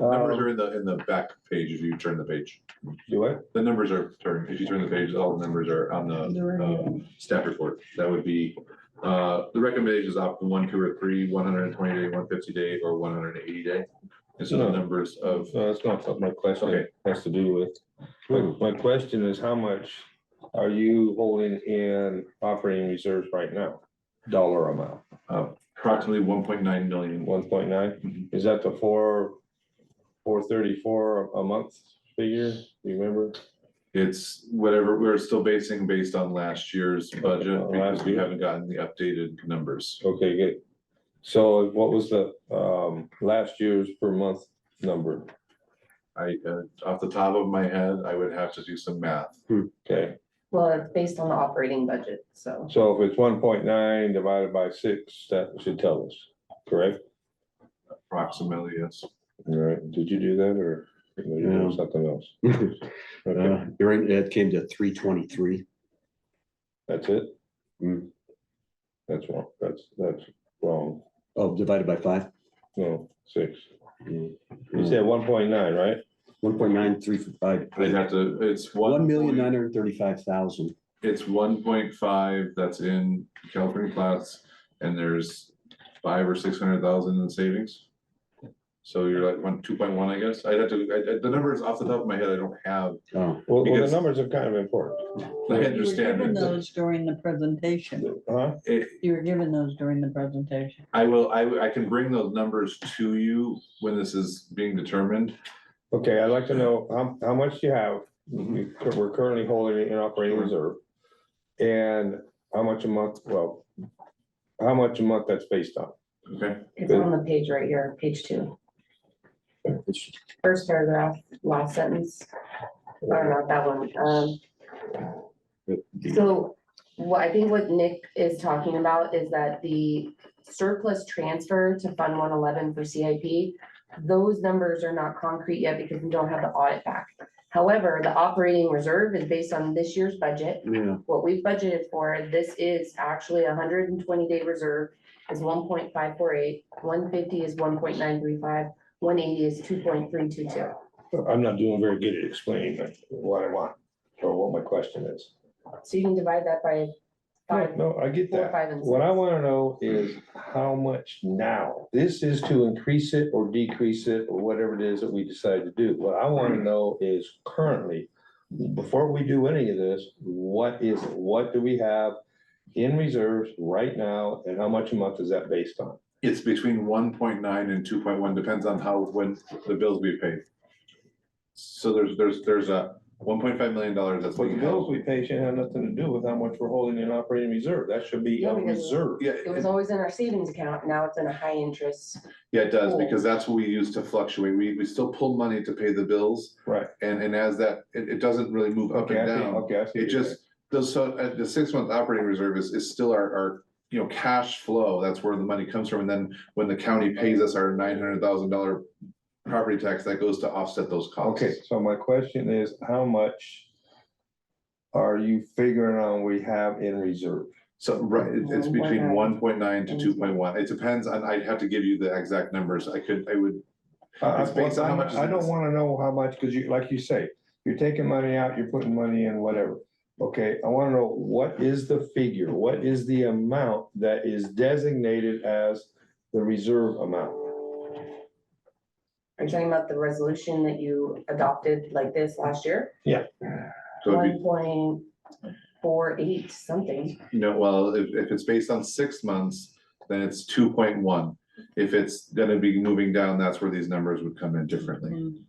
Numbers Um, are in the, in the back page if you turn the page. Do I? The numbers are turned, if you turn the page, all the numbers are on the um, staff report. That would be, uh, the recommendations opt for one, two, or three, one hundred and twenty day, one fifty day, or one hundred and eighty day. And so the Hmm. numbers of, No, that's uh, not what my question Okay. has to do with. My- My question is how much are you holding in operating reserves right now? Dollar amount, uh, approximately one point nine million. one point nine? Mhm. Is that the four, four thirty-four a month figure? Do you remember? It's whatever, we're still basing based on last year's budget Uh, because last we year. haven't gotten the updated numbers. Okay, good. So what was the um last year's per month number? I, uh, off the top of my head, I would have to do some math. Okay, Well, it's based on the operating budget, so so if it's one point nine divided by six, that should tell us, correct? Approximately, yes. All right, did you do that or did you do No. something else? Uh, Okay, You're right, that came to three twenty-three. that's it? Hmm. Mm. That's wrong, that's, that's wrong, Oh, divided by five? Uh, no, six. You said one point nine, right? One point nine three five. uh, I'd have to, it's one. One million point- nine hundred thirty-five thousand. It's one point five that's in California class and there's five or six hundred thousand in savings. So you're like one, two point one, I guess. I'd have to, I, I- the numbers off the top of my head, I don't have, Oh, Well, well, the Because- numbers are kind of important. I You were given understand. it. those during the presentation. Huh? It, You were given those during the presentation. I will, I, I can bring those numbers to you when this is being determined. Okay, I'd like to know how, how much you have, we- we're currently holding in operating reserve. And how much a month, well, how much a month that's based on? Okay, it's on the page right here, page two. First paragraph, last sentence, or not that one, um. So, what I think what Nick is talking about is that the surplus transfer to Fund one eleven for CIP. Those numbers are not concrete yet because we don't have the audit back. However, the operating reserve is based on this year's budget. yeah, what we've budgeted for, this is actually a hundred and twenty day reserve is 1.548, 150 is one point nine three five, one eighty is two point three two two. I'm not doing very good at explaining like, what I want or what my question is. So you can divide that by No, five, No, I get four, that. five and six. What I want to know is how much now? This is to increase it or decrease it or whatever it is that we decide to do. What I want to know is currently, before we do any of this, what is, it? what do we have in reserves right now and how much a month is that based on? it's between one point nine and two point one, depends on how, when the bills we pay. So there's, there's, there's a one point five million dollars that's. being held. we pay should have nothing to do with how much we're holding in operating reserve. That should be a Yeah, because- Yeah, It was always in our savings account, now it's in a high interest. Yeah, it does, Cool. because that's what we use to fluctuate. We, we still pull money to pay the bills. Right. And, and as that, it, it doesn't really move up Okay, and I see, down. okay. I see. It just, those, so, uh, the six month operating reserve is, is still our, our, you know, cash flow. That's where the money comes from. And then when the county pays us our nine hundred thousand dollar property tax, that goes to offset those costs. Okay, so my question is, how much are you figuring on we have in reserve? So, right, it- it's between 1.9. one point nine to two point one. It depends on, I'd have to give you the exact numbers. I could, I would, I- It's based on how much is I I in don't this. wanna know how much, cause you, like you say, you're taking money out, you're putting money in, whatever. Okay, I wanna know, what is the figure, what is the amount that is designated as the reserve amount? Are you talking about the resolution that you adopted like this last year? so it'd be One point four eight something, No, well, if, if it's based on six months, then it's two point one. If it's gonna be moving down, that's where these numbers would come in differently.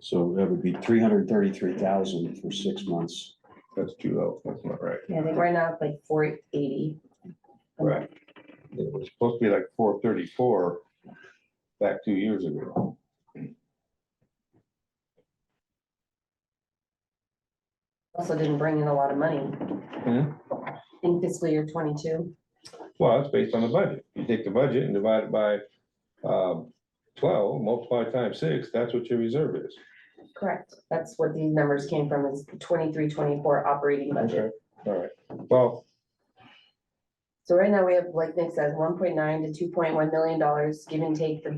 so that would be three hundred thirty-three thousand for six months. That's too low, that's not right. Yeah, I think right now it's like four eighty. Right. It was supposed to be like four thirty-four back two years ago. Also didn't bring in a lot of money. In fiscal year twenty-two. Well, it's based on the budget. You take the budget and divide it by um twelve, multiply it times six, that's what your reserve is. Correct, that's what these numbers came from, is twenty-three, twenty-four operating budget. Okay, all right. Well, So right now, we have, like Nick says, one point nine to two point one million dollars, give and take the